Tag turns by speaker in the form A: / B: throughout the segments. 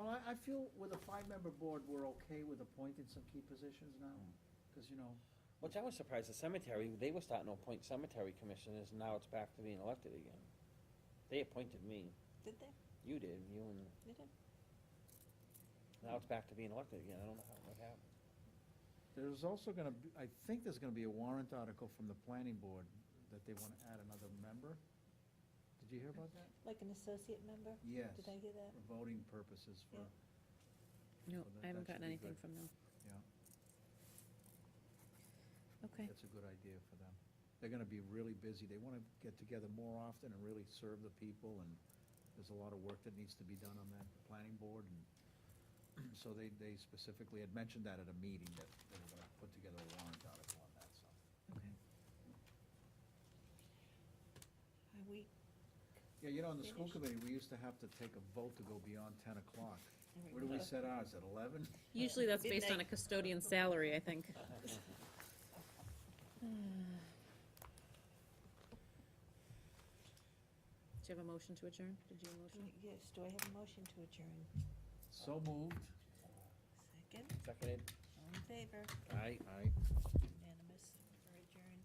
A: I, I feel with a five-member board, we're okay with appointing some key positions now, because, you know,
B: Which I was surprised, the cemetery, they were starting to appoint cemetery commissioners, now it's back to being elected again. They appointed me,
C: Did they?
B: you did, you and,
C: They did.
B: now it's back to being elected again, I don't know how, what happened.
A: there's also gonna, be I think there's gonna be a warrant article from the planning board that they wanna add another member. Did you hear about that?
C: Like an associate member?
A: Yes,
C: Did I hear that?
A: for voting purposes for,
C: Yeah.
D: No,
A: Well, that-
D: I haven't
A: that should
D: gotten
A: be
D: anything
A: good.
D: from them.
A: yeah,
D: Okay,
A: that's a good idea for them. They're gonna be really busy, they wanna get together more often and really serve the people, and there's a lot of work that needs to be done on that planning board, and so they, they specifically had mentioned that at a meeting, that they were gonna put together a warrant article on that, so.
D: okay.
C: Are we,
A: Yeah, you know, on the school
C: Finished.
A: committee, we used to have to take a vote to go beyond ten o'clock.
C: we
A: Where do we
C: go.
A: set ours, at eleven?
D: Usually that's based on a
C: Midnight.
D: custodian salary, I think. Do
C: Hmm.
D: you have a motion to adjourn? Did you have a motion?
C: yes, do I have a motion to adjourn?
A: So moved.
C: Second,
B: Seconded,
C: all in favor,
B: aye.
A: Aye.
C: unanimous, we're adjourned.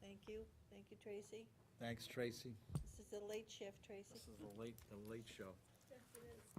C: Thank you, thank you, Tracy.
A: Thanks, Tracy.
C: This is a late shift, Tracy.
A: This is the late, the late show.
E: Yes, it is.